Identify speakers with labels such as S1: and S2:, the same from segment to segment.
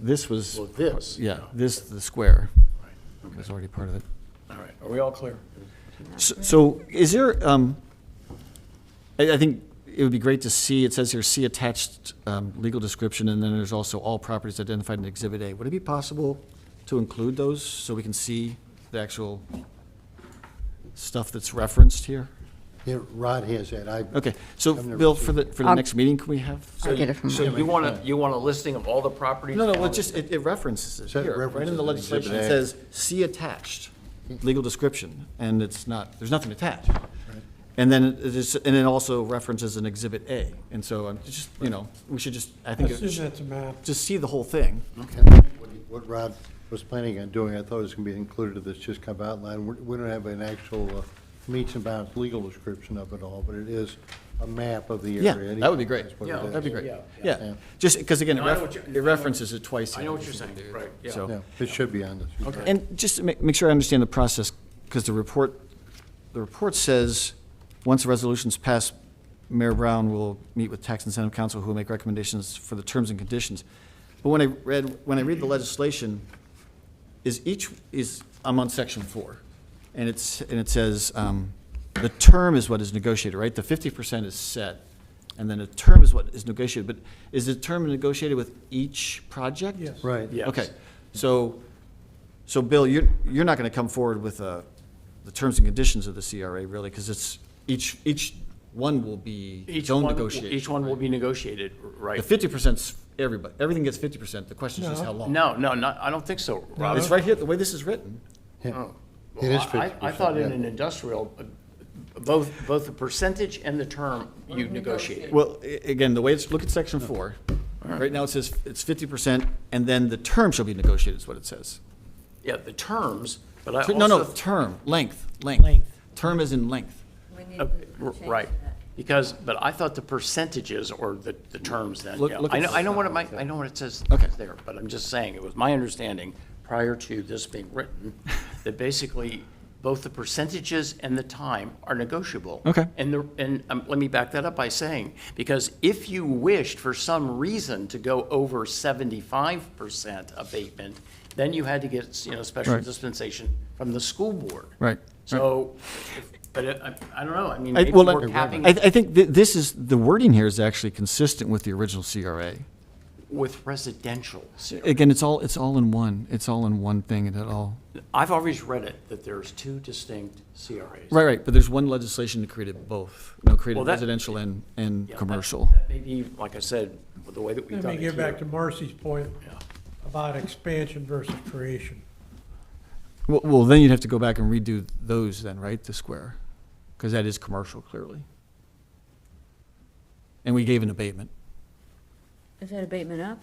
S1: This was,
S2: Well, this.
S1: yeah, this, the square was already part of it.
S2: All right, are we all clear?
S1: S- So is there, um, I, I think it would be great to see, it says here, see attached, um, legal description, and then there's also all properties identified in Exhibit A. Would it be possible to include those so we can see the actual stuff that's referenced here?
S2: Yeah, Rod has that, I.
S1: Okay, so
S2: I've never
S1: Bill,
S2: seen
S1: for the, for the
S3: Um,
S1: next meeting, can we have?
S3: I'll get it from
S4: So
S3: Mike.
S4: you want a, you want a listing of all the properties?
S1: No, no, well,
S4: on
S1: it just, it it references it
S2: So it
S1: here, right in the
S2: references it in
S1: legislation, it
S2: Exhibit A.
S1: says, see attached, legal description, and it's not, there's nothing attached. And then it is, and it also references an Exhibit A, and so I'm just, you know, we should just, I think, it should-
S5: that's a map.
S1: just see the whole thing.
S2: Okay. What he- What Rod was planning on doing, I thought it was gonna be included in this just kind of outline. We- We don't have an actual uh, meets and bounds legal description of it all, but it is a map of the
S1: Yeah,
S2: area.
S1: that would be great.
S2: That's what it
S4: Yeah,
S2: is.
S1: That'd be great, yeah,
S2: Yeah.
S1: just, because again, it
S4: No, I know
S1: ref-
S4: what you-
S1: it references it twice.
S4: I know what you're saying, right, yeah.
S1: So-
S2: Yeah, it should be on this.
S4: Okay.
S1: And just to ma- make sure I understand the process, because the report, the report says, once the resolution's passed, Mayor Brown will meet with Tax Incentive Council, who will make recommendations for the terms and conditions. But when I read, when I read the legislation, is each, is, I'm on section four, and it's, and it says, um, the term is what is negotiated, right? The fifty percent is set, and then a term is what is negotiated, but is the term negotiated with each project?
S5: Yes.
S2: Right.
S4: Yeah. Yes.
S1: Okay, so, so Bill, you're, you're not gonna come forward with, uh, the terms and conditions of the CRA, really, because it's, each, each one will be
S4: Each
S1: its own
S4: one,
S1: negotiation.
S4: each one will be negotiated,
S1: The
S4: right?
S1: fifty percent's everybody, everything gets fifty percent, the question is just how
S5: No.
S1: long.
S4: No, no, not, I don't think so, Rob.
S1: It's right here, the way this is written.
S2: Yeah.
S1: Oh,
S4: Well,
S2: It is
S4: I- I- I
S2: 50%,
S4: thought in
S2: yeah.
S4: an industrial, uh, both, both the percentage and the term you negotiated.
S1: Well, a- again, the way it's, look at section four. Right now, it says it's fifty percent, and then the term shall be negotiated, is what it says.
S4: Yeah, the terms, but I also.
S1: No, no, term, length, length.
S5: Length.
S1: Term is in length.
S6: We need
S4: Uh,
S6: to
S4: r-
S6: change
S4: Right,
S6: that.
S4: because, but I thought the percentages or the, the terms then,
S1: Look-
S4: yeah.
S1: look
S4: I
S1: at
S4: know,
S1: the-
S4: I know what it might, I know what it says
S1: Okay.
S4: there, but I'm just saying, it was my understanding, prior to this being written, that basically both the percentages and the time are negotiable.
S1: Okay.
S4: And the, and um, let me back that up by saying, because if you wished for some reason to go over seventy-five percent abatement, then you had to get, you know, special
S1: Right.
S4: dispensation from the school board.
S1: Right, right.
S4: So, if- but it- I, I don't know, I mean,
S1: I-
S4: maybe
S1: well,
S4: we're
S1: I-
S4: capping
S1: I, I think thi- this is, the wording here is actually consistent with the original CRA.
S4: with residential.
S1: Again, it's all, it's all in one, it's all in one thing and it all,
S4: I've always read it, that there's two distinct CRAs.
S1: right, right, but there's one legislation that created both, you know, created
S4: Well, that-
S1: residential and, and
S4: Yeah, that-
S1: commercial.
S4: that may be, like I said, with the way that we've
S5: Let
S4: done
S5: me
S4: it
S5: get back to
S4: here.
S5: Marcy's point
S4: Yeah.
S5: about expansion versus creation.
S1: Well, well, then you'd have to go back and redo those then, right, the square? Because that is commercial clearly. And we gave an abatement.
S6: Is that abatement up?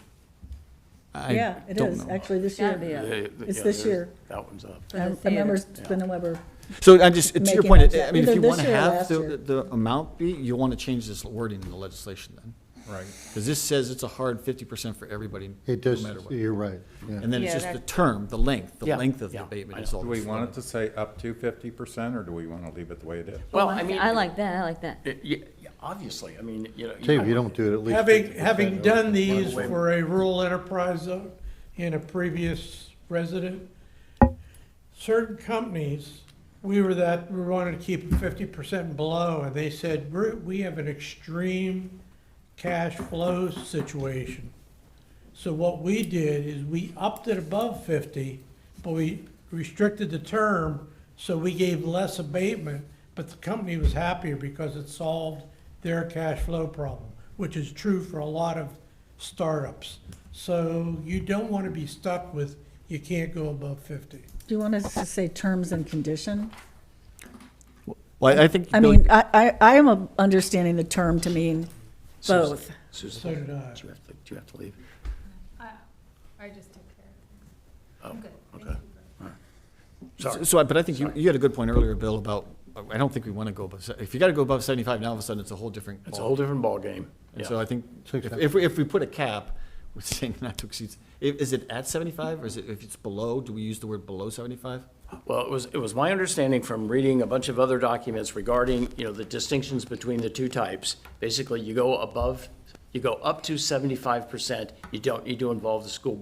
S1: I
S7: Yeah, it
S1: don't
S7: is,
S1: know.
S7: actually, this
S6: Gotta be
S7: year.
S6: up.
S4: Yeah, yeah,
S7: It's
S4: yeah,
S7: this
S4: there's-
S7: year.
S4: That one's up.
S6: For the
S7: I I
S6: theater.
S7: remember, I remember,
S1: So I just, to your
S7: Making
S1: point,
S7: up
S1: I- I
S7: that-
S1: mean, if
S7: either
S1: you
S7: this
S1: want to
S7: year or
S1: have
S7: last
S1: the,
S7: year.
S1: the amount be, you'll want to change this wording in the legislation then. Right. Because this says it's a hard fifty percent for everybody, no
S2: It does,
S1: matter what.
S2: you're right, yeah.
S1: And then it's
S6: Yeah,
S1: just the
S6: that-
S1: term, the length, the
S4: Yeah,
S1: length of the
S4: yeah,
S1: abatement
S4: I
S1: is
S4: know.
S1: all.
S8: Do we want it to say up to fifty percent, or do we want to leave it the way it is?
S4: Well, I mean.
S6: I like that, I like that.
S4: Yeah, yeah, Obviously, I mean, you know.
S2: Say if you don't do it, at least.
S5: Having,
S2: 50%
S5: having
S2: of it.
S5: done these for a rural enterprise zone and a previous resident, certain companies, we were that, we wanted to keep fifty percent below, and they said, "We're- we have an extreme cash flow situation. So what we did is we upped it above fifty, but we restricted the term, so we gave less abatement, but the company was happier because it solved their cash flow problem, which is true for a lot of startups. So you don't want to be stuck with, you can't go above fifty.
S7: do you want us to say terms and condition?
S1: Well, I think.
S7: I
S1: Billy-
S7: mean, I, I, I am a- understanding the term to mean
S4: Susan-
S7: both.
S4: Susan,
S5: So did I.
S4: Do you have to, do you have to leave?
S9: I I just took
S4: Oh,
S9: care of it. I'm good. Thank
S4: okay.
S9: you.
S4: Sorry.
S1: So, I- but I think you, you had a good point earlier, Bill, about, I don't think we want to go above, se- if you got to go above seventy-five, now all of a sudden it's a whole different.
S4: It's a
S1: ball.
S4: whole different ballgame.
S1: And
S4: Yeah.
S1: so I think,
S2: Six
S1: if,
S2: cents.
S1: if, we- if we put a cap, we're saying not to exceed, i- is it at seventy-five, or is it, if it's below, do we use the word below seventy-five?
S4: Well, it was, it was my understanding from reading a bunch of other documents regarding, you know, the distinctions between the two types. Basically, you go above, you go up to seventy-five percent, you don't need to involve the school